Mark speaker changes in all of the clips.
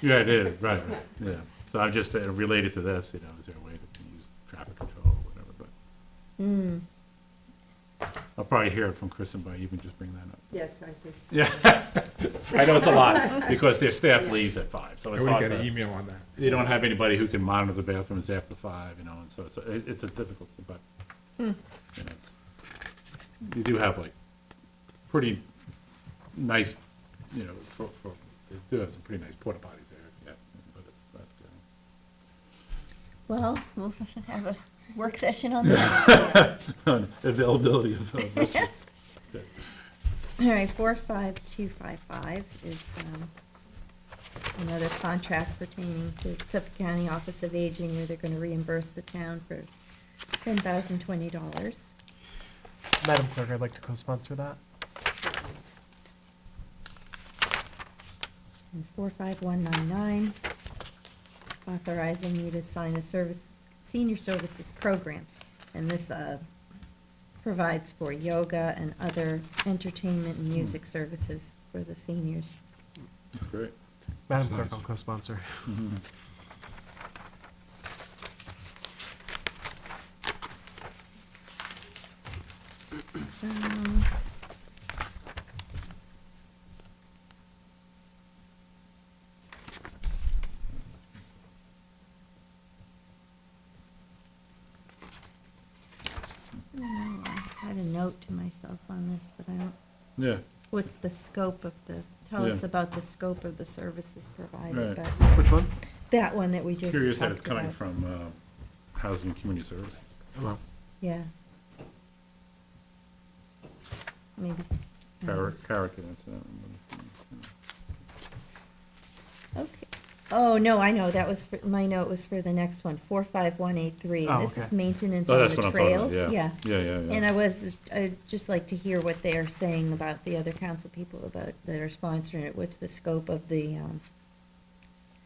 Speaker 1: Yeah, it is, right, right, yeah. So I'm just saying, related to this, you know, is there a way to use traffic control or whatever, but. I'll probably hear it from Kristen, but you can just bring that up.
Speaker 2: Yes, I think.
Speaker 1: Yeah, I know it's a lot, because their staff leaves at five, so
Speaker 3: I
Speaker 1: it's
Speaker 3: would have
Speaker 1: hard
Speaker 3: got an
Speaker 1: to.
Speaker 3: email on that.
Speaker 1: They don't have anybody who can monitor the bathrooms after five, you know, and so it's, a- it- it's a difficult, but. you know, it's- You do have like pretty nice, you know, for, for, they do have some pretty nice porta potties there, yeah, but it's not, uh,
Speaker 4: Well, we'll have a work session on that.
Speaker 1: on availability of those restaurants.
Speaker 4: All right, four five two five five is, um, another contract pertaining to Suffolk County Office of Aging where they're gonna reimburse the town for ten thousand twenty dollars.
Speaker 5: Madam Clerk, I'd like to co-sponsor that.
Speaker 4: And four five one nine nine, authorizing me to sign a service, senior services program. And this, uh, provides for yoga and other entertainment and music services for the seniors.
Speaker 1: That's great.
Speaker 5: Madam
Speaker 3: That's
Speaker 5: Clerk,
Speaker 3: nice.
Speaker 5: I'll co-sponsor.
Speaker 4: Um, I don't know, I had a note to myself on this, but I don't,
Speaker 1: Yeah,
Speaker 4: what's the scope of the, tell us
Speaker 1: Yeah.
Speaker 4: about the scope of the services provided,
Speaker 1: Right.
Speaker 4: but
Speaker 5: Which one?
Speaker 4: that one that we just
Speaker 1: curious that it's
Speaker 4: talked
Speaker 1: coming
Speaker 4: about.
Speaker 1: from uh, Housing and Community Services.
Speaker 5: Well,
Speaker 4: Yeah. Maybe. I don't know.
Speaker 1: Carrick, Carrick, that's, uh, um,
Speaker 4: Okay. Oh, no, I know, that was, for my note was for the next one, four five one eight three.
Speaker 5: Oh,
Speaker 4: This is
Speaker 5: okay.
Speaker 4: maintenance
Speaker 1: oh,
Speaker 4: on
Speaker 1: that's what
Speaker 4: the
Speaker 1: I'm talking about,
Speaker 4: trails,
Speaker 1: yeah.
Speaker 4: yeah.
Speaker 1: Yeah, yeah, yeah.
Speaker 4: And I was, I'd just like to hear what they are saying about the other council people about, that are sponsoring it. What's the scope of the, um,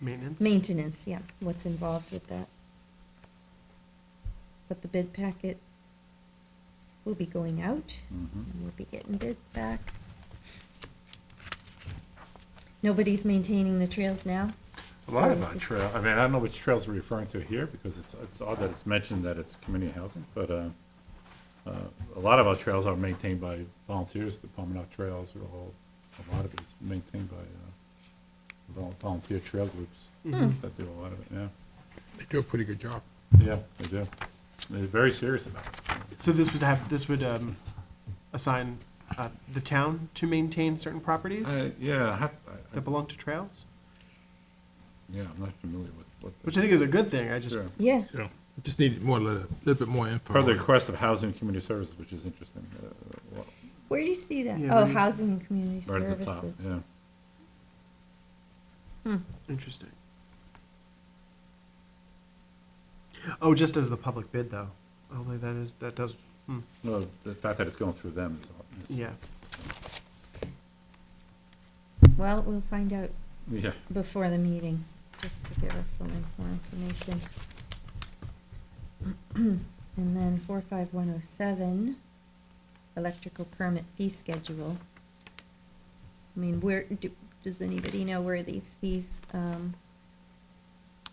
Speaker 5: Maintenance?
Speaker 4: maintenance, yeah, what's involved with that? But the bid packet will be going out.
Speaker 1: Mhm.
Speaker 4: And we'll be getting bids back. Nobody's maintaining the trails now?
Speaker 1: A lot about trail, I mean, I don't know which trails we're referring to here, because it's, it's odd that it's mentioned that it's community housing, but uh, uh, a lot of our trails are maintained by volunteers, the Palmanock Trails, are all, a lot of it's maintained by uh, vol- volunteer trail groups
Speaker 4: Hmm.
Speaker 1: that do a lot of it, yeah.
Speaker 3: They do a pretty good job.
Speaker 1: Yeah, they do. They're very serious about it.
Speaker 5: So this would have, this would um, assign uh, the town to maintain certain properties
Speaker 1: I- Uh, Yeah, I have, I- I-
Speaker 5: that belong to trails?
Speaker 1: yeah, I'm not familiar with what. the-
Speaker 5: Which I think is a good thing, I just,
Speaker 1: Sure.
Speaker 4: Yeah,
Speaker 3: Yeah. Just needed more, a little little bit more info.
Speaker 1: Per the
Speaker 3: on it.
Speaker 1: request of Housing and Community Services, which is interesting, uh, well,
Speaker 4: where do you see that?
Speaker 5: Yeah,
Speaker 4: Oh,
Speaker 5: right-
Speaker 4: housing and community
Speaker 1: right at the top,
Speaker 4: services.
Speaker 1: yeah.
Speaker 5: interesting. Oh, just as the public bid, though. Only that is, that does, hmm,
Speaker 1: Well, the fact that it's going through them is. all- is-
Speaker 5: yeah.
Speaker 4: Well, we'll find out
Speaker 1: Yeah,
Speaker 4: before the meeting, just to give us some more information. And then four five one oh seven, electrical permit fee schedule. I mean, where, do- does anybody know where these fees, um,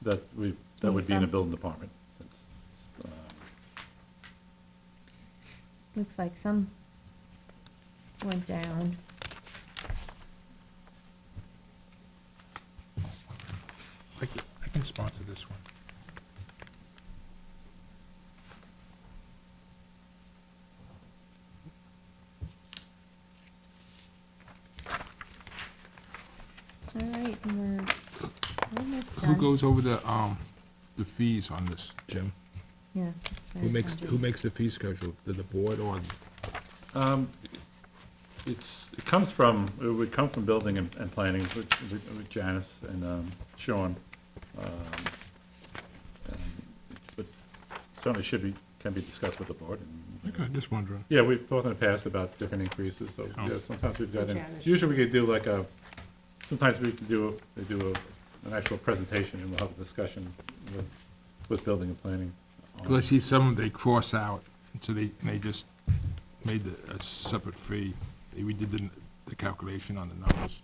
Speaker 1: that we, that would be in the
Speaker 4: Income.
Speaker 1: building department. It's- it's, um,
Speaker 4: Looks like some went down.
Speaker 3: I can- I can sponsor this one.
Speaker 4: All right, and we're almost done.
Speaker 3: Who goes over the, um, the fees on this, Jim?
Speaker 4: Yeah. that's
Speaker 3: Who
Speaker 4: very
Speaker 3: makes,
Speaker 4: funny.
Speaker 3: who makes the fee schedule? The, the board or?
Speaker 1: Um, It's, it comes from, it would come from building and, and planning with, with with Janice and um, Sean. Um, and it- But certainly should be, can be discussed with the board. and-
Speaker 3: Okay, just wondering.
Speaker 1: Yeah, we've talked in the past about different increases, so,
Speaker 3: Oh.
Speaker 1: yeah, sometimes we've got, in-
Speaker 2: Janice.
Speaker 1: usually we could do like a, sometimes we could do, a- they do a- an actual presentation and we'll have a discussion with, with building and planning. on-
Speaker 3: Because I see some they cross out, and so they, and they just made the, a separate fee. We did the, the calculation on the numbers.